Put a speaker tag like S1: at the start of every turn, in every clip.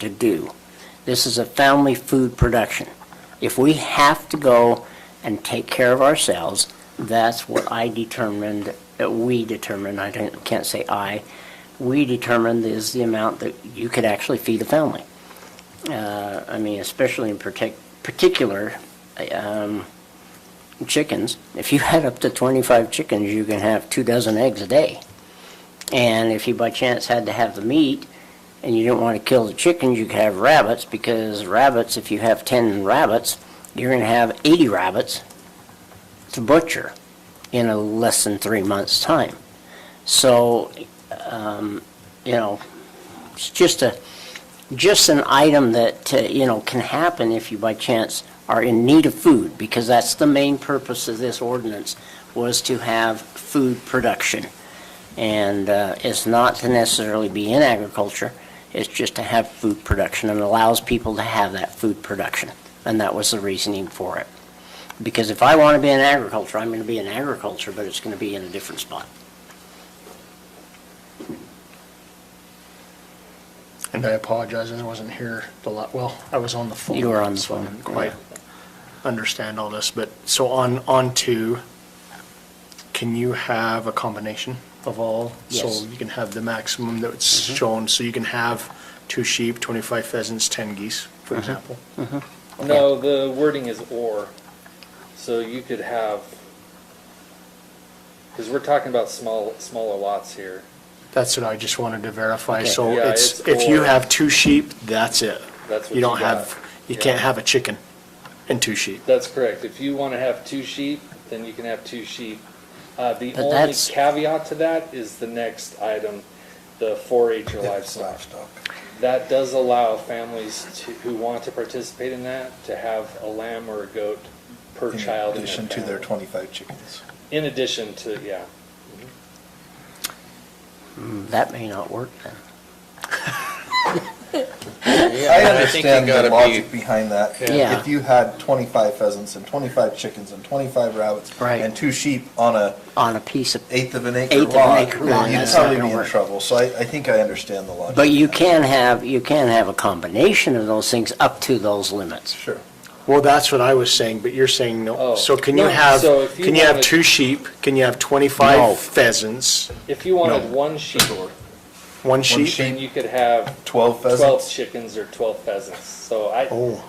S1: to do. This is a family food production. If we have to go and take care of ourselves, that's what I determined, uh, we determined, I don't- can't say I, we determined is the amount that you could actually feed a family. Uh, I mean, especially in partic- particular, um, chickens. If you had up to 25 chickens, you can have two dozen eggs a day. And if you by chance had to have the meat and you didn't want to kill the chickens, you could have rabbits because rabbits, if you have 10 rabbits, you're going to have 80 rabbits to butcher in a less than three months' time. So, um, you know, it's just a, just an item that, uh, you know, can happen if you by chance are in need of food because that's the main purpose of this ordinance was to have food production. And uh, it's not to necessarily be in agriculture, it's just to have food production and allows people to have that food production. And that was the reasoning for it. Because if I want to be in agriculture, I'm going to be in agriculture, but it's going to be in a different spot.
S2: And I apologize, I wasn't here the lot, well, I was on the phone.
S1: You were on the
S2: so I didn't
S1: phone,
S2: quite understand all this, but, so on, on to, can you have a combination of all?
S1: Yes. Mm-hmm.
S2: So you can have the maximum that's shown, so you can have two sheep, 25 pheasants, 10 geese,
S1: Mm-hmm.
S2: for example.
S3: No, the wording is or, so you could have, because we're talking about small, smaller lots here.
S2: That's what I just wanted to verify,
S1: Okay.
S2: so
S3: Yeah,
S2: it's,
S3: it's
S2: if you
S3: or.
S2: have two sheep, that's it.
S3: That's what
S2: You don't
S3: you got.
S2: have, you
S3: Yeah.
S2: can't have a chicken and two sheep.
S3: That's correct. If you want to have two sheep, then you can have two sheep. Uh, the
S1: But
S3: only
S1: that's-
S3: caveat to that is the next item, the four-H or livestock. That does allow families to, who want to participate in that, to have a lamb or a goat per child
S4: In
S3: in their
S4: addition to their
S3: family.
S4: 25 chickens.
S3: In addition to, yeah.
S1: Mm, That may not work then.
S4: I
S5: I think you
S4: understand the
S5: gotta
S4: logic
S5: be-
S4: behind that.
S1: Yeah. Yeah.
S4: If you had 25 pheasants and 25 chickens and 25 rabbits
S1: Right.
S4: and two sheep on a
S1: On a piece of,
S4: eighth of an
S1: Eighth
S4: acre
S1: of an
S4: lot,
S1: acre lot,
S4: you'd
S1: that's not
S4: probably
S1: gonna
S4: be in
S1: work.
S4: trouble. So I, I think I understand the logic.
S1: but you can have, you can have a combination of those things up to those limits.
S4: Sure.
S2: Well, that's what I was saying, but you're saying no.
S3: Oh.
S2: So can you
S3: No,
S2: have,
S3: so if you
S2: can you have
S3: wanted-
S2: two sheep? Can you have
S1: No.
S2: 25 pheasants?
S3: If you wanted
S2: No.
S3: one sheep,
S2: One sheep?
S4: sheep.
S3: then you could have 12
S4: 12 pheasants.
S3: chickens or 12 pheasants, so I,
S2: Oh,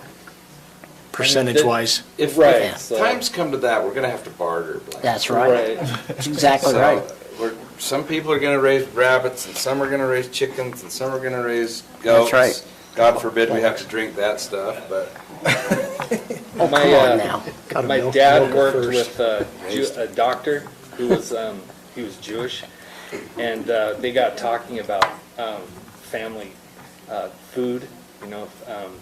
S2: percentage-wise.
S5: If
S3: right,
S5: if
S3: so,
S5: times come to that, we're gonna have to barter. Blaine.
S1: That's right,
S3: right,
S1: That's exactly
S5: So,
S1: right.
S5: We're, some people are gonna raise rabbits, and some are gonna raise chickens, and some are gonna raise goats.
S1: That's right.
S5: God forbid we have to drink that stuff, but
S1: Oh, come
S3: My,
S1: on
S3: uh,
S1: now.
S2: Gotta
S3: my
S2: milk- milk
S3: dad
S2: it
S3: worked
S2: first.
S3: with a, Jew- a doctor who was, um, he was Jewish, and, uh, they got talking about, um, family, uh, food, you know, um,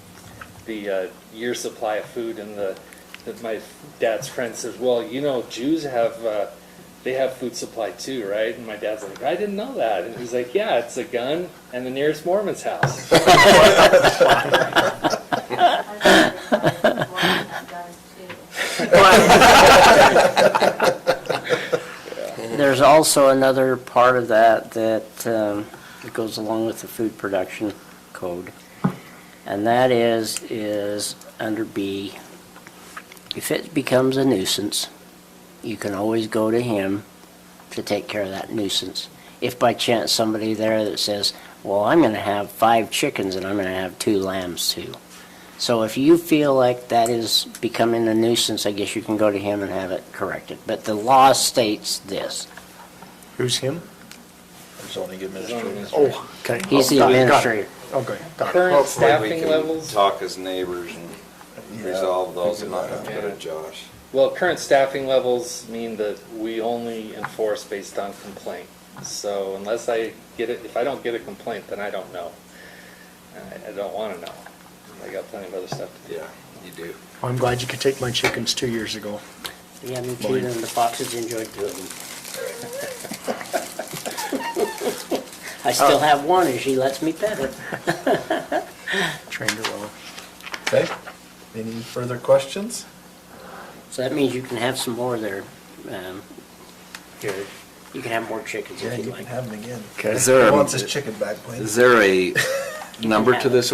S3: the, uh, year supply of food, and the, that my dad's friend says, well, you know, Jews have, uh, they have food supply too, right? And my dad's like, I didn't know that, and he's like, yeah, it's a gun and the nearest Mormon's house.
S1: There's also another part of that that um, that goes along with the food production code, and that is, is under B, if it becomes a nuisance, you can always go to him to take care of that nuisance. If by chance somebody there that says, well, I'm going to have five chickens and I'm going to have two lambs too. So if you feel like that is becoming a nuisance, I guess you can go to him and have it corrected. But the law states this.
S2: Who's him?
S4: Zoning administrator.
S2: Oh, okay.
S1: He's the
S2: Oh, got it, got
S1: administrator.
S2: it. Okay, got it. Oh,
S3: Current
S5: hopefully we
S3: staffing
S5: can
S3: levels,
S5: talk as neighbors and
S4: Yeah,
S5: resolve those and
S4: figure
S5: not
S4: that
S5: have
S4: out.
S5: to go to Josh.
S3: well, current staffing levels mean that we only enforce based on complaint. So unless I get it, if I don't get a complaint, then I don't know. And I- I don't want to know. I got plenty of other stuff to do.
S5: Yeah, you do.
S2: I'm glad you could take my chickens two years ago.
S1: Yeah, me too, and the foxes enjoyed two of them. I still have one, and she lets me pet her.
S2: Trained her well.
S4: Okay. Any further questions?
S1: So that means you can have some more there, um, Jared. You can have more chickens
S4: Yeah,
S1: if
S4: you
S1: you
S4: can
S1: like.
S4: have them again.
S2: Okay.
S4: He wants his chicken back, please.
S5: there a
S1: number to this